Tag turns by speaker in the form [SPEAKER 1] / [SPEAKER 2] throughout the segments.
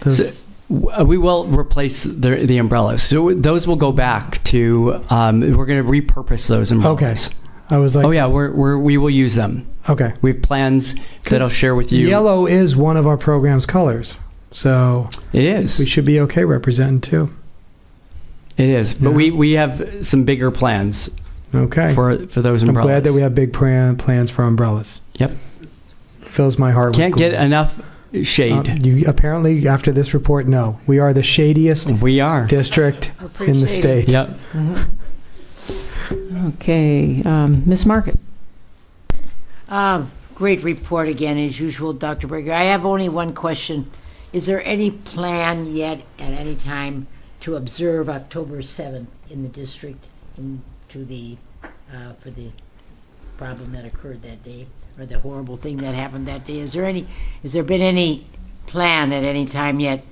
[SPEAKER 1] This
[SPEAKER 2] So-
[SPEAKER 1] is-
[SPEAKER 2] Uh, We will replace the, the umbrellas. So those will go back to. Um, we're going to repurpose those
[SPEAKER 1] okay.
[SPEAKER 2] umbrellas.
[SPEAKER 1] I was like,
[SPEAKER 2] Oh yeah, we're, we're we will use them.
[SPEAKER 1] okay.
[SPEAKER 2] We have plans that I'll share with you.
[SPEAKER 1] Yellow is one of our program's colors, so
[SPEAKER 2] It
[SPEAKER 1] we
[SPEAKER 2] is.
[SPEAKER 1] should be okay representing too.
[SPEAKER 2] It is. But
[SPEAKER 1] Yeah.
[SPEAKER 2] we, we have some bigger plans
[SPEAKER 1] Okay.
[SPEAKER 2] for for those
[SPEAKER 1] I'm
[SPEAKER 2] umbrellas.
[SPEAKER 1] glad that we have big plan, plans for umbrellas.
[SPEAKER 2] Yep.
[SPEAKER 1] Fills my heart.
[SPEAKER 2] can't
[SPEAKER 1] with
[SPEAKER 2] get
[SPEAKER 1] glee.
[SPEAKER 2] enough shade.
[SPEAKER 1] Uh, you apparently after this report, no, we are the shadiest
[SPEAKER 2] we are.
[SPEAKER 1] district in the
[SPEAKER 3] Appreciate
[SPEAKER 1] state.
[SPEAKER 2] Yep.
[SPEAKER 4] Okay, um, Ms. Marcus?
[SPEAKER 3] Um, Great report again, as usual, Dr. Berger. I have only one question. Is there any plan yet at any time to observe October 7th in the district in- to the, uh, for the problem that occurred that day, or the horrible thing that happened that day? Is there any, has there been any plan at any time yet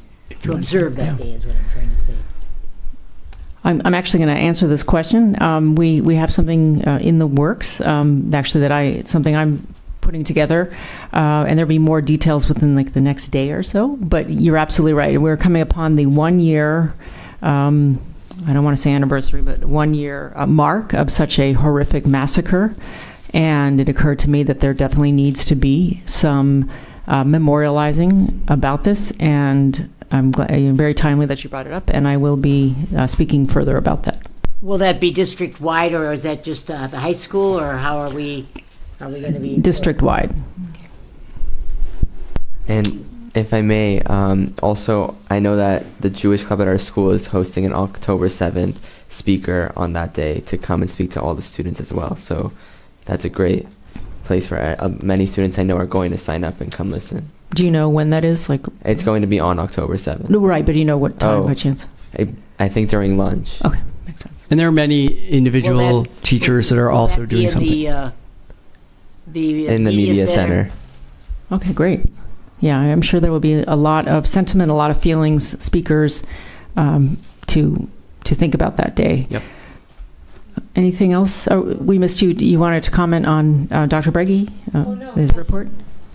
[SPEAKER 3] to observe that day, is what I'm trying to say?
[SPEAKER 4] I'm, I'm actually going to answer this question. Um, we, we have something uh, in the works, um, actually, that I, it's something I'm putting together, uh, and there'll be more details within like the next day or so. But you're absolutely right. We're coming upon the one year, um, I don't want to say anniversary, but one year uh, mark of such a horrific massacre. And it occurred to me that there definitely needs to be some uh, memorializing about this, and I'm glad, very timely that you brought it up, and I will be uh, speaking further about that.
[SPEAKER 3] Will that be district-wide, or is that just uh, the high school, or how are we, are we going to be?
[SPEAKER 4] District wide.
[SPEAKER 5] And if I may, um, also, I know that the Jewish Club at our school is hosting an October 7th speaker on that day to come and speak to all the students as well. So that's a great place for uh, many students I know are going to sign up and come listen.
[SPEAKER 4] Do you know when that is? Like,
[SPEAKER 5] It's going to be on October 7th.
[SPEAKER 4] no, right, but you know what time
[SPEAKER 5] Oh.
[SPEAKER 4] by chance?
[SPEAKER 5] I, I think during lunch.
[SPEAKER 4] Okay, makes sense.
[SPEAKER 2] And there are many individual
[SPEAKER 3] Will that-
[SPEAKER 2] teachers that are
[SPEAKER 3] Will
[SPEAKER 2] also
[SPEAKER 3] that be
[SPEAKER 2] doing
[SPEAKER 3] in
[SPEAKER 2] something.
[SPEAKER 3] The, uh, the uh,
[SPEAKER 5] In the media, center.
[SPEAKER 4] Okay, great. Yeah, I'm sure there will be a lot of sentiment, a lot of feelings, speakers um, to to think about that day.
[SPEAKER 5] Yep.
[SPEAKER 4] Anything else? Oh, we missed you. You wanted to comment on uh, Dr. Breggy, uh,
[SPEAKER 6] Oh, no,
[SPEAKER 4] his
[SPEAKER 6] just-
[SPEAKER 4] report?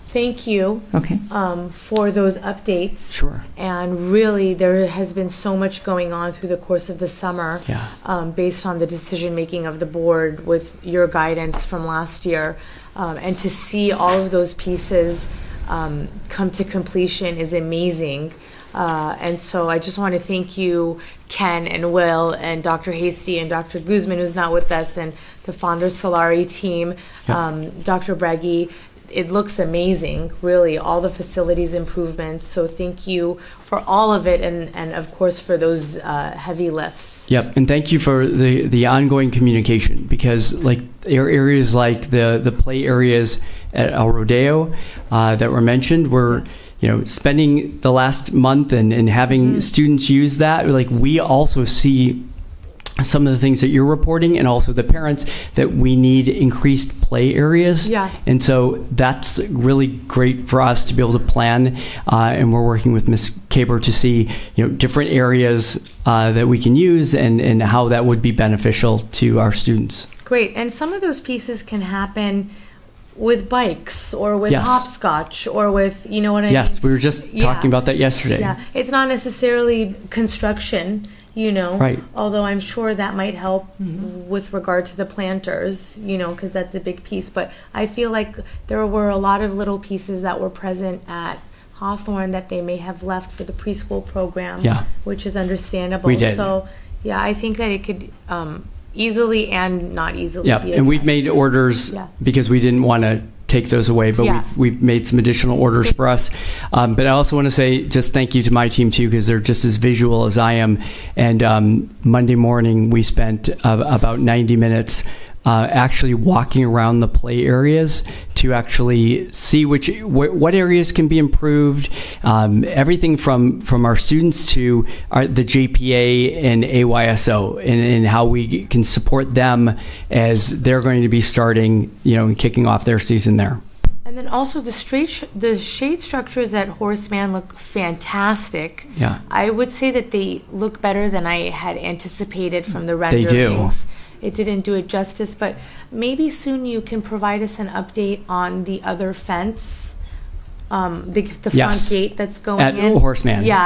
[SPEAKER 6] Thank you
[SPEAKER 4] Okay.
[SPEAKER 6] um, for those updates.
[SPEAKER 2] Sure.
[SPEAKER 6] And really, there has been so much going on through the course of the summer
[SPEAKER 2] Yeah.
[SPEAKER 6] um, based on the decision making of the board with your guidance from last year. Um, and to see all of those pieces um, come to completion is amazing. Uh, and so I just want to thank you, Ken and Will, and Dr. Hasty and Dr. Guzman, who's not with us, and the Founder Solari team, um, Dr. Breggy. It looks amazing, really, all the facilities improvements. So thank you for all of it, and, and of course for those uh, heavy lifts.
[SPEAKER 2] Yep, and thank you for the, the ongoing communication because like there are areas like the the play areas at El Rodeo uh, that were mentioned were you know spending the last month and and having students use that like we also see some of the things that you're reporting and also the parents that we need increased play areas
[SPEAKER 6] Yeah.
[SPEAKER 2] and so that's really great for us to be able to plan uh, and we're working with ms caber to see you know different areas uh, that we can use and and how that would be beneficial to our students
[SPEAKER 6] Great. And some of those pieces can happen with bikes or with
[SPEAKER 2] Yes.
[SPEAKER 6] hopscotch or with, you know what I
[SPEAKER 2] yes we
[SPEAKER 6] mean?
[SPEAKER 2] were just
[SPEAKER 6] Yeah.
[SPEAKER 2] talking about that yesterday
[SPEAKER 6] Yeah. It's not necessarily construction, you know?
[SPEAKER 2] Right.
[SPEAKER 6] Although I'm sure that might help with regard to the planters, you know, because that's a big piece. But I feel like there were a lot of little pieces that were present at Hawthorne that they may have left for the preschool program,
[SPEAKER 2] Yeah.
[SPEAKER 6] which is understandable.
[SPEAKER 2] We did.
[SPEAKER 6] So, yeah, I think that it could um, easily and not easily
[SPEAKER 2] Yeah,
[SPEAKER 6] be
[SPEAKER 2] and we've made
[SPEAKER 6] addressed.
[SPEAKER 2] orders
[SPEAKER 6] Yeah.
[SPEAKER 2] because we didn't want to take those away, but
[SPEAKER 6] Yeah.
[SPEAKER 2] we've, we've made some additional orders for us. Um, but I also want to say just thank you to my team too, because they're just as visual as I am. And um, Monday morning, we spent uh, about 90 minutes uh, actually walking around the play areas to actually see which wh- what areas can be improved. Um, everything from from our students to our, the JPA and AYSO, and, and how we can support them as they're going to be starting, you know, and kicking off their season there.
[SPEAKER 6] And then also the straight, sh- the shade structures at Horseman look fantastic.
[SPEAKER 2] Yeah.
[SPEAKER 6] I would say that they look better than I had anticipated from the
[SPEAKER 2] They
[SPEAKER 6] renderings.
[SPEAKER 2] do.
[SPEAKER 6] It didn't do it justice, but maybe soon you can provide us an update on the other fence, um, the, the front
[SPEAKER 2] Yes.
[SPEAKER 6] gate that's going
[SPEAKER 2] At
[SPEAKER 6] in.
[SPEAKER 2] Horseman.
[SPEAKER 6] Yeah,